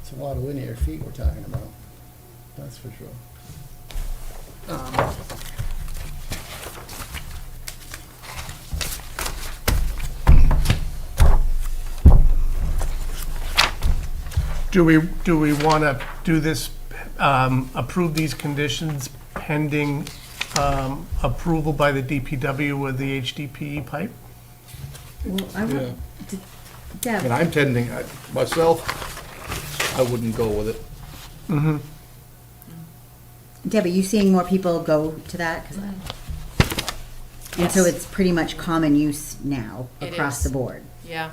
It's a lot of linear feet we're talking about, that's for sure. Um, Do we, do we want to do this, um, approve these conditions pending um, approval by the DPW with the HDPE E pipe? Well, I Yeah. want, d- I mean, Deb, I'm tending, I- myself, I wouldn't go with it. Deb, are you seeing more people go to that? 'Cause I- And so Yes. it's pretty much common use now It across is. the board. Yeah.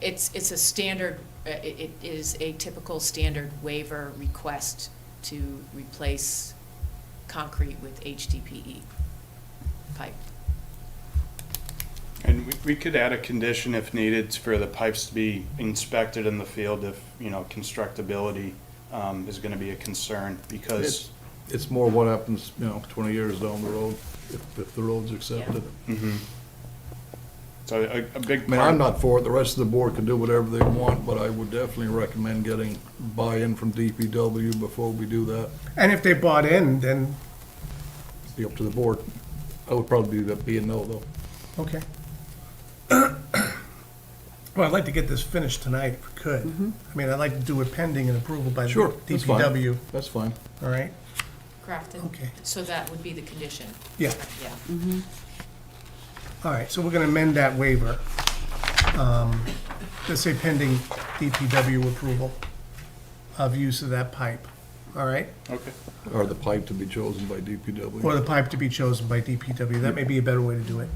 It's, it's a standard, uh, it it is a typical standard waiver request to replace concrete with HDPE E pipe. And we, we could add a condition if needed for the pipes to be inspected in the field if, you know, constructability, um, is gonna be a concern It's, because, it's more what happens, you know, twenty years down the road, if, if the road's accepted. so a, a big I mean, I'm part, not for it, the rest of the board can do whatever they want, but I would definitely recommend getting buy-in from DPW before we do that. And if they bought in, then, Be up to the board. I would probably be, be a no, though. okay. Well, I'd like to get this finished tonight if we could. I mean, I'd like to do it pending and approval by the Sure, that's fine. DPW, That's fine. all right? Crafton? Okay. So that would be the condition, Yeah, yeah. Mm. all right, so we're going to amend that waiver. um, To say pending DPW approval of use of that pipe, all right? okay. Or the pipe to be chosen by Or DPW. the pipe to be chosen by DPW, that may be a better way to do it.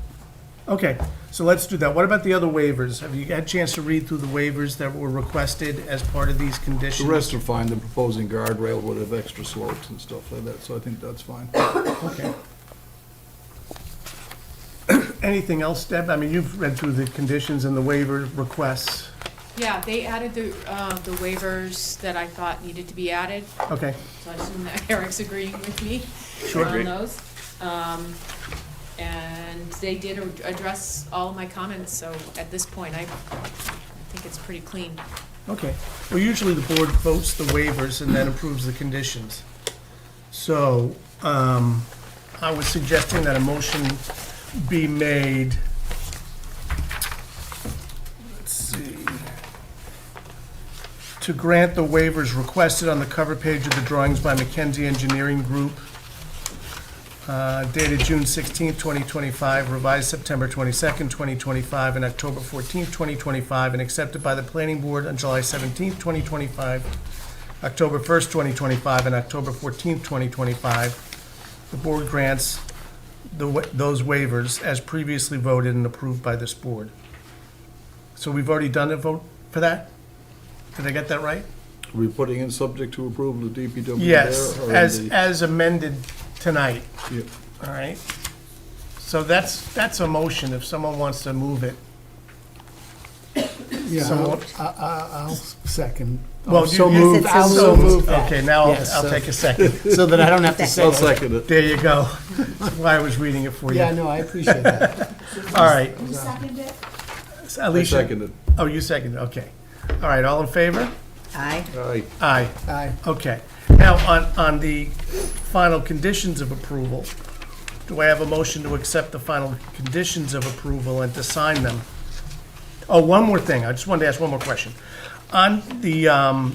Okay, so let's do that. What about the other waivers? Have you had a chance to read through the waivers that were requested as part of these The conditions? rest are fine, the proposing guardrail would have extra slopes and stuff like that, so I think that's fine. Okay. Anything else, Deb? I mean, you've read through the conditions and the waiver requests. Yeah, they added the, uh, the waivers that I thought needed to be added, Okay, so I assume that Eric's agreeing with me Sure. on those. Um, And they did a- address all my comments, so at this point, I think it's pretty clean. okay. Well, usually the board votes the waivers and then approves the conditions. So, um, I was suggesting that a motion be made. Let's see. To grant the waivers requested on the cover page of the drawings by McKenzie Engineering Group uh, dated June 16, 2025, revised September 22, 2025, and October 14, 2025, and accepted by the planning board on July 17, 2025, October 1, 2025, and October 14, 2025. The board grants the wa- those waivers as previously voted and approved by this board. So we've already done a vote for that? Did I get that right? Are we putting in subject to approval of DPW there? Yes, or in as, the- as amended tonight. yeah. All right. So that's, that's a motion if someone wants to move it. Yeah, Someone- I'll- I- I- I'll second. Well, I'll Oh, so you- you- moved, I'll so moved that. Okay, now I'll- Yes, I'll so- take a second. So that I don't have to say. I'll second it. There you go. That's why I was reading it for you. Yeah, All no, I appreciate that. right. Who seconded it? I Alicia? second it. Oh, you seconded, okay. All right, all in favor? Aye. Aye. Aye. Aye. Okay. Now, on, on the final conditions of approval, do I have a motion to accept the final conditions of approval and to sign them? Oh, one more thing. I just wanted to ask one more question. On the, um,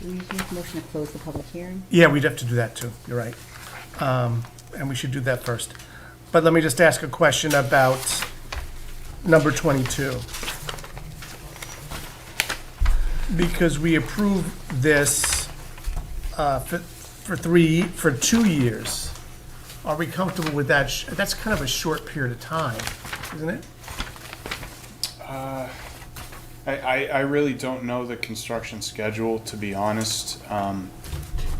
Do we make a motion to close the public hearing? yeah, we'd have to do that too. You're right. Um, and we should do that first. But let me just ask a question about number 22. Because we approve this uh, for for three, for two years. Are we comfortable with that? sh- That's kind of a short period of time, isn't it? I, I, I really don't know the construction schedule, to be honest. Um,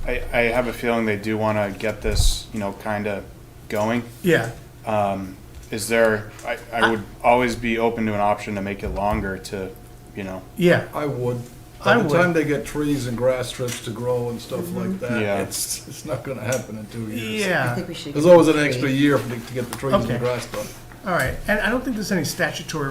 I, I have a feeling they do wanna get this, you know, kinda going. Yeah. Is there, I, I would always be open to an option to make it longer to, you know, Yeah. I would. I By the would. Mm-hmm. time they get trees and grass strips to grow and stuff like that, Yeah. it's, it's not gonna happen in two years. I Yeah. think we should. There's give always an three. extra year for the- to get the trees Okay. and grass done. All right. And I don't think there's any statutory